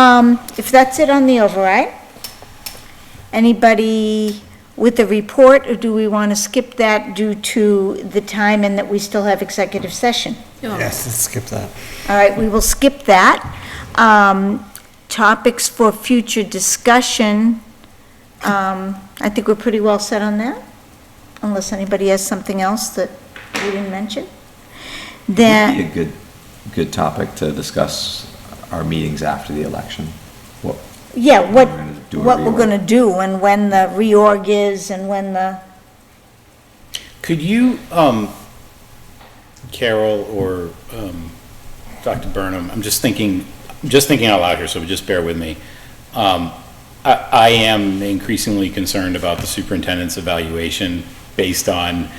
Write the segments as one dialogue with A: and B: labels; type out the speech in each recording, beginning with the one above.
A: Um, if that's it on the override, anybody with a report, or do we want to skip that due to the time and that we still have executive session?
B: Yes, let's skip that.
A: All right, we will skip that. Um, Topics for future discussion, um, I think we're pretty well set on that, unless anybody has something else that we didn't mention.
C: Would
A: Then,
C: be a good, good topic to discuss our meetings after the election. What,
A: yeah, what,
C: We're gonna do a
A: what we're
C: reorg.
A: going to do, and when the reorg is, and when the,
D: Could you, um, Carol or, um, Dr. Burnham, I'm just thinking, just thinking out loud here, so just bear with me. Um, I, I am increasingly concerned about the superintendent's evaluation based on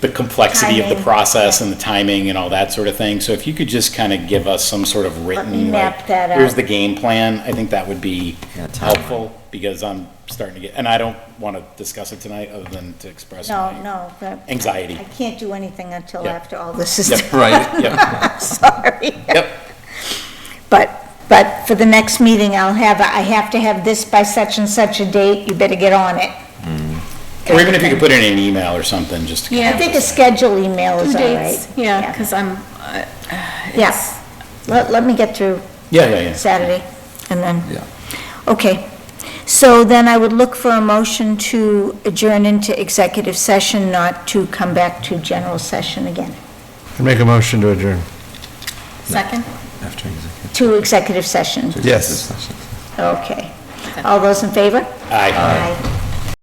D: the complexity of the
A: Timing.
D: process and the timing and all that sort of thing. So if you could just kind of give us some sort of
A: me
D: written.
A: map
D: like,
A: that out.
D: Here's the game plan. I think that would be
C: Yeah, timeline.
D: helpful because I'm starting to get, and I don't want to discuss it tonight other than to express my.
A: no, no. that-
D: Anxiety.
A: I can't do anything until
D: Yeah.
A: after all this is done.
D: Yep, right, yep,
A: Sorry.
D: yep.
A: But, but for the next meeting, I'll have, I have to have this by such and such a date, you better get on it.
D: Mm. Or even if you could put it in an email or something, just to.
A: I
E: Yeah.
A: think a schedule email
E: Two
A: is all
E: dates,
A: right.
E: yeah, because I'm, uh,
A: Yes. Let, let me get through
D: Yeah, yeah, yeah.
A: Saturday, and then,
C: yeah.
A: okay. So then I would look for a motion to adjourn into executive session, not to come back to general session again,
B: Make a motion to adjourn.
E: second.
C: After executive.
A: to executive session.
B: Yes.
C: session.
A: Okay. All those in favor?
D: Aye.
A: Aye.